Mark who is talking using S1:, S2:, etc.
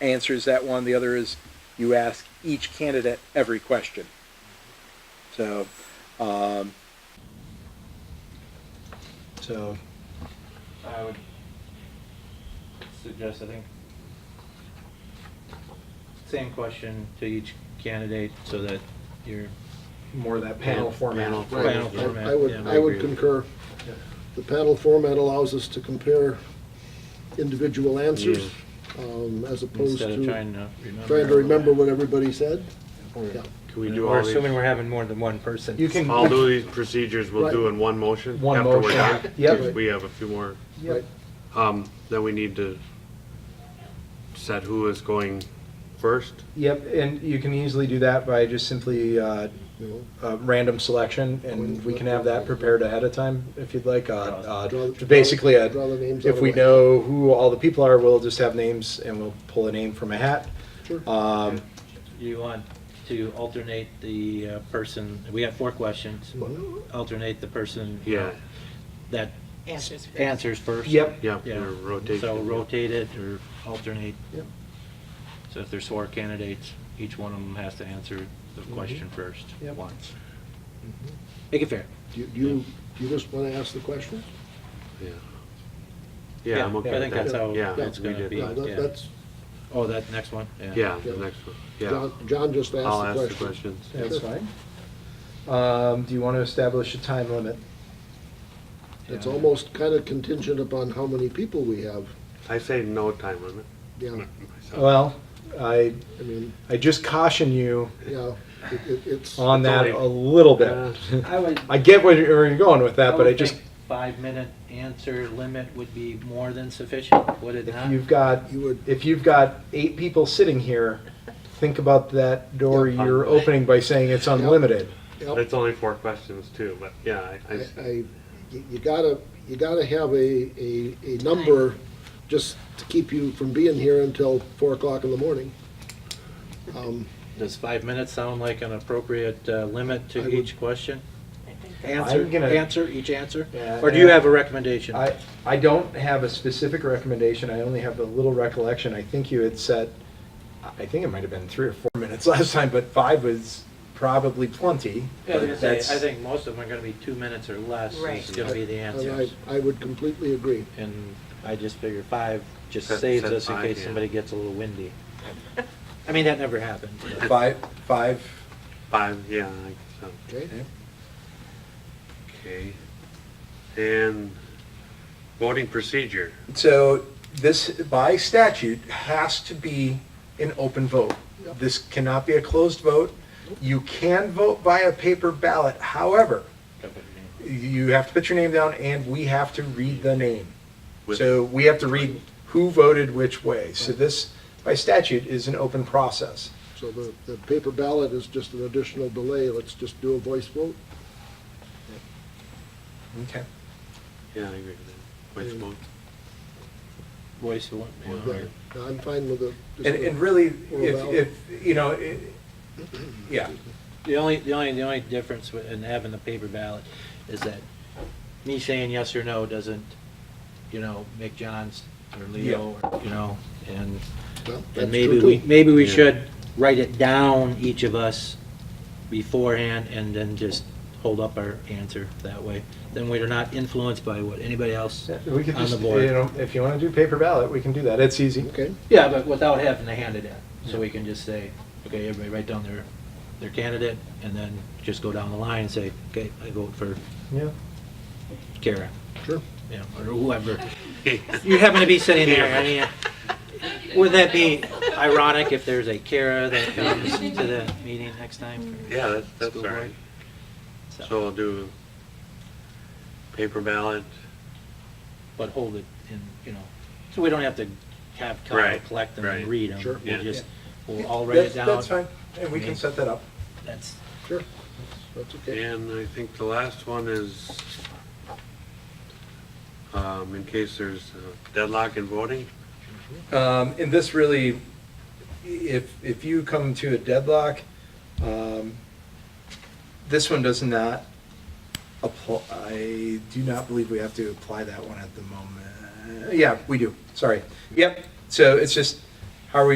S1: answers that one. The other is you ask each candidate every question. So, um, so
S2: I would suggest, I think, same question to each candidate so that you're,
S3: more that panel
S4: Panel
S3: format.
S2: Right. Panel
S4: yeah.
S2: format.
S5: I would,
S2: Yeah, I
S5: I would
S4: agree with
S5: concur.
S2: Yeah.
S5: The panel format allows us to compare individual answers, um, as opposed
S2: instead
S5: to
S2: of trying to remember.
S5: trying to remember what everybody said. Yeah.
S4: Can we do
S2: We're
S4: all these,
S2: assuming we're having more than one person.
S3: You can-
S4: all of these procedures we'll do in one motion?
S3: One
S4: after we're
S3: motion.
S4: done?
S3: Yep.
S4: 'Cause We have a few more.
S3: Yep.
S4: Um, then we need to set who is going first.
S3: Yep, and you can easily do that by just simply uh,
S5: You know,
S3: uh, random selection, and we can have that prepared ahead of time if you'd like. Uh, uh,
S5: Draw-
S3: to Basically, a-
S5: draw the names out
S3: if
S5: of
S3: we
S5: the-
S3: know who all the people are, we'll just have names and we'll pull a name from a hat.
S5: Sure.
S4: Uh,
S3: Um,
S2: You want to alternate the uh, person, we have four questions, alternate the person.
S4: Yeah,
S2: That
S6: Answers first.
S2: answers first.
S3: Yep,
S4: yeah,
S2: Yeah.
S4: or rotate.
S2: So rotate it or alternate.
S3: Yep.
S2: So if there's four candidates, each one of them has to answer the question first,
S3: Yep.
S2: once. Make it fair.
S5: Do you- do you, do you just wanna ask the question?
S4: Yeah. Yeah, I'm okay
S2: I think
S4: with
S2: that's how
S4: that. Yeah,
S2: it's
S4: we
S2: gonna
S4: did
S2: be.
S4: that.
S5: No, that-
S2: yeah.
S5: that's,
S2: Oh, that next one?
S4: Yeah, the next one, yeah.
S5: John, John just
S4: I'll
S5: asked
S4: ask
S5: the
S4: the
S5: question.
S4: questions.
S3: that's fine. Um, Do you want to establish a time limit?
S5: It's
S2: Yeah.
S5: almost kinda contingent upon how many people we have,
S4: I say no time limit.
S5: yeah,
S4: myself.
S3: Well, I,
S5: I mean,
S3: I just caution you
S5: yeah, it- it- it's.
S3: on
S4: It's
S3: that
S4: only-
S3: a little
S4: Uh,
S3: bit.
S2: I would,
S3: I get where you're where you're going with
S2: I
S3: that, but I
S2: would
S3: just,
S2: think five-minute answer limit would be more than sufficient, would it
S3: if
S2: not?
S3: you've got,
S5: You would-
S3: if you've got eight people sitting here, think about that door
S4: Yeah.
S3: you're opening by saying it's unlimited.
S5: Yep.
S4: That's only four questions too, but yeah, I-
S5: I,
S4: I,
S5: I, you you gotta, you gotta have a, a, a number just to keep you from being here until four o'clock in the morning. Um,
S2: Does five minutes sound like an appropriate uh, limit
S5: I
S2: to
S5: would-
S2: each question?
S6: I think that-
S2: Answer,
S3: gonna-
S2: answer, each answer?
S3: Yeah,
S2: Or do you
S3: yeah.
S2: have a recommendation?
S3: I, I don't have a specific recommendation, I only have a little recollection, I think you had said, I think it might have been three or four minutes last time, but five was probably plenty.
S2: Yeah, I was gonna say,
S3: That's-
S2: I think most of them are gonna be two minutes or less,
S6: Right.
S2: is gonna be the
S5: and
S2: answers.
S5: I, I would completely agree.
S2: And I just figure five just
S4: Set-
S2: saves
S4: set
S2: us in
S4: five,
S2: case
S4: yeah.
S2: somebody gets a little windy. I mean, that never happened. but-
S3: Five, five,
S4: five, yeah, I guess so.
S5: Okay,
S4: Okay. And voting procedure.
S3: So this, by statute, has to be an open vote. This cannot be a closed vote. You can vote by a paper ballot, however, you have to put your name down and we have to read the name.
S4: With-
S3: So we have to read who voted which way. So this, by statute, is an open process.
S5: so the, the paper ballot is just an additional delay, let's just do a voice vote.
S3: Okay.
S4: Yeah, I agree with that. Voice
S5: Mm.
S4: vote.
S2: Voice of one, you know,
S5: Yeah,
S2: or-
S5: I'm fine with the. just
S3: And,
S5: the-
S3: and really,
S5: Or ballot.
S3: if, if, you know, it- yeah,
S2: The only, the only, the only difference with- in having the paper ballot is that me saying yes or no doesn't, you know, make John's or Leo, or, you know, and,
S5: Well, that's
S2: and maybe
S5: true,
S2: we,
S5: too.
S2: maybe we
S4: Yeah.
S2: should write it down, each of us, beforehand, and then just hold up our answer that way. Then we're not influenced by what anybody else on
S3: we could
S2: the
S3: just, you
S2: board.
S3: know, if you want to do paper ballot, we can do that. It's easy.
S5: Okay,
S2: Yeah, but without having to hand it in, so we can just say, okay, everybody write down their, their candidate, and then just go down the line and say, okay, I vote for
S3: Yeah.
S2: Kara,
S5: sure.
S2: you know, or whoever. You happen to be sitting there, I mean, would that be ironic if there's a Kara that comes to the meeting next time? for
S4: Yeah, that's, that's all
S2: school board?
S4: right. So
S2: So,
S4: we'll do paper ballot.
S2: but hold it in, you know, so we don't have to have Kyle
S4: Right,
S2: collect them and
S4: right.
S2: read them.
S5: Sure.
S2: We'll
S4: Yeah.
S2: just, we'll all write it
S3: That's-
S2: down.
S3: That's fine, and we can
S2: Okay.
S3: set that up.
S2: That's,
S5: That's okay.
S4: And I think the last one is, um, in case there's a deadlock in voting.
S3: Um, and this really, if, if you come to a deadlock, um, this one does not apply, I do not believe we have to apply that one at the moment. Yeah, we do, sorry. Yep, so it's just, how are we